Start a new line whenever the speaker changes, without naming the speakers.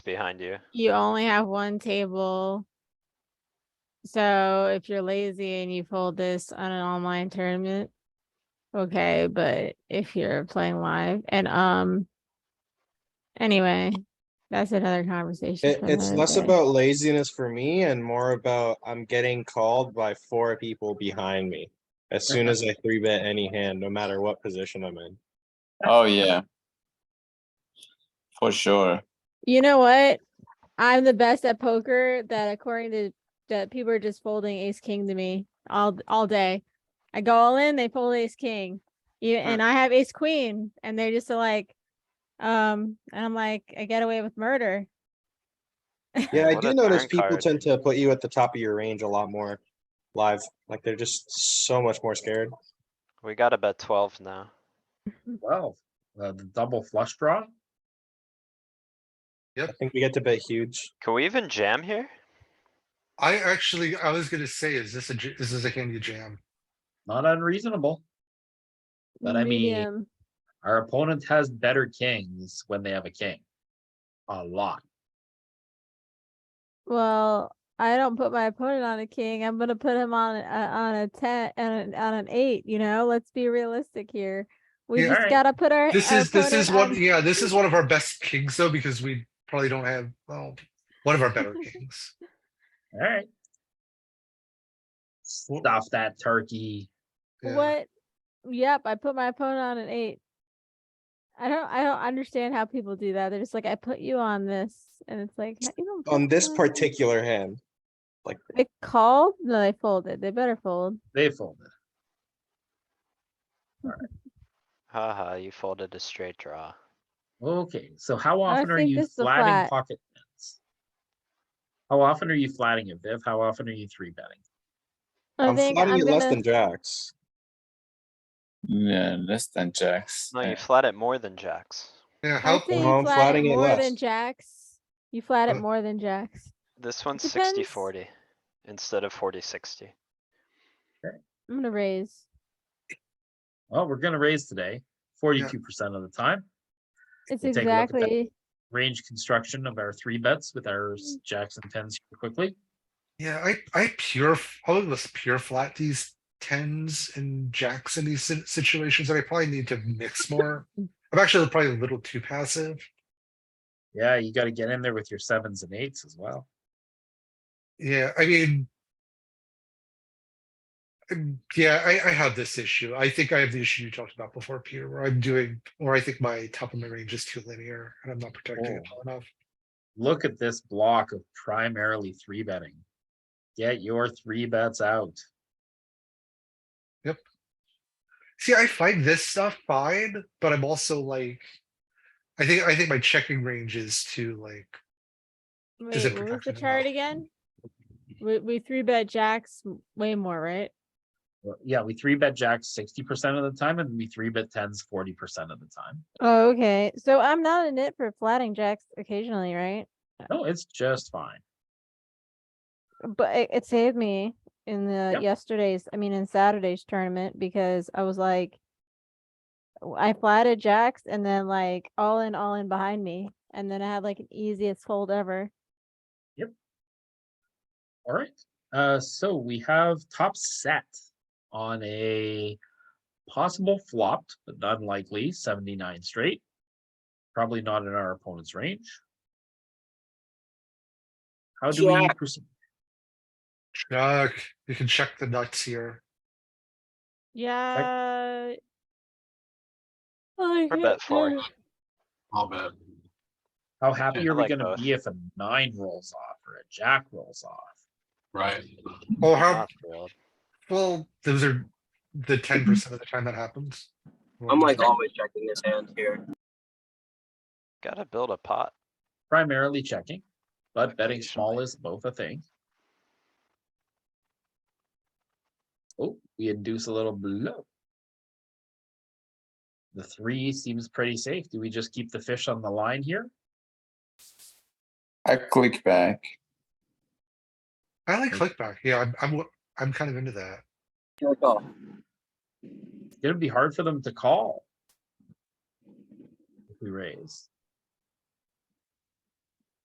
behind you.
You only have one table. So if you're lazy and you fold this on an online tournament, okay, but if you're playing live and um anyway, that's another conversation.
It,
for
it's
another
less
day.
about laziness for me and more about I'm getting called by four people behind me. As soon as I three bet any hand, no matter what position I'm in.
Oh, yeah. For sure.
You know what? I'm the best at poker that according to that people are just folding ace king to me all all day. I go all in, they fold ace king. You and I have ace queen and they're just like um and I'm like I get away with murder.
Yeah, I
What
do
a
notice
turn
people
card.
tend to put you at the top of your range a lot more live. Like they're just so much more scared.
We gotta bet twelve now.
Well, uh, the double flush draw.
I think we get to bet huge.
Can we even jam here?
I actually, I was gonna say, is this a, j- this is a handy jam?
Not unreasonable. But I mean-
Medium.
Our opponent has better kings when they have a king. A lot.
well, I don't put my opponent on a king. I'm gonna put him on a, on a ten and on an eight. You know, let's be realistic here. We
Yeah.
just
Alright.
gotta put our
This is, this
opponent
is one,
on-
yeah, this is one of our best kings though, because we probably don't have, well, one of our better kings.
Alright. Stuff that turkey.
Yeah.
What? Yep, I put my opponent on an eight. I don't I don't understand how people do that. They're just like, I put you on this, and it's like "No, you don't
On
put
this
me
particular hand,
They called? No, they folded. They better fold.
They folded.
Haha, you folded a straight draw.
Okay, so how often are
think
you
this is a
flatting
flat.
pocket tens? How often are you flatting it, Viv? How often are you three betting?
I
I'm
think
flatting
I'm
it less
gonna-
than jacks.
Yeah, less than jacks.
No,
Yeah.
you flat it more than jacks.
Yeah,
I
how,
say you
No, I'm
flat
flatting
it
it
more
less.
than jacks. You flat it
Uh,
more than jacks.
This one's
depends.
60 40 instead of 40 60.
I'm gonna raise.
Well, we're gonna raise today, forty-two percent of the time.
It's
We'll take a look at that.
exactly
Range construction of our three bets with our s- jacks and tens here quickly.
yeah, I, I pure, f- I would just pure flat these tens and jacks in these si- situations that I probably need to mix more. I'm actually probably a little too passive.
Yeah, you gotta get in there with your sevens and eights as well.
Yeah, I mean. um, Yeah, I, I have this issue. I think I have the issue you talked about before, Peter, where I'm doing, or I think my top of my range is too linear and I'm not protecting it
Oh.
well enough.
Look at this block of primarily three betting. Get your three bets out.
See, I find this stuff fine, but I'm also like. I think, I think my checking range is too like,
wait, what
it
was the
protection enough?
chart again? We we three bet jacks m- way more, right?
Well, Yeah, we three bet jacks sixty percent of the time and we three bet tens forty percent of the time.
Oh, okay. So I'm not a nit for flatting jacks occasionally, right?
No, it's just fine.
but it, it saved me in the
Yep.
yesterday's i mean in saturday's tournament because i was like w- i flatted jacks and then like all in all in behind me and then i had like an easiest fold ever
All right, uh, so we have top set on a possible flopped, but not likely seventy-nine straight. Probably not in our opponent's range. How do we proceed?
check, you can check the nuts here.
yeah oh,
Or bet four.
I'll bet.
How happy
I
are we
like
gonna
both.
be if a nine rolls off or a jack rolls off?
Right. Well, Oh, how,
Not thrilled.
well, those are the ten percent of the time that happens.
I'm
Well,
like always checking this hand here.
Gotta build a pot.
Primarily checking, but betting small
Occasionally.
is both a thing. Oh, we induce a little blow. The three seems pretty safe. Do we just keep the fish on the line here?
I click back.
I like clickback. Yeah, I'm, I'm, I'm kind of into that.
Here we go.
It's gonna be hard for them to call. If we raise.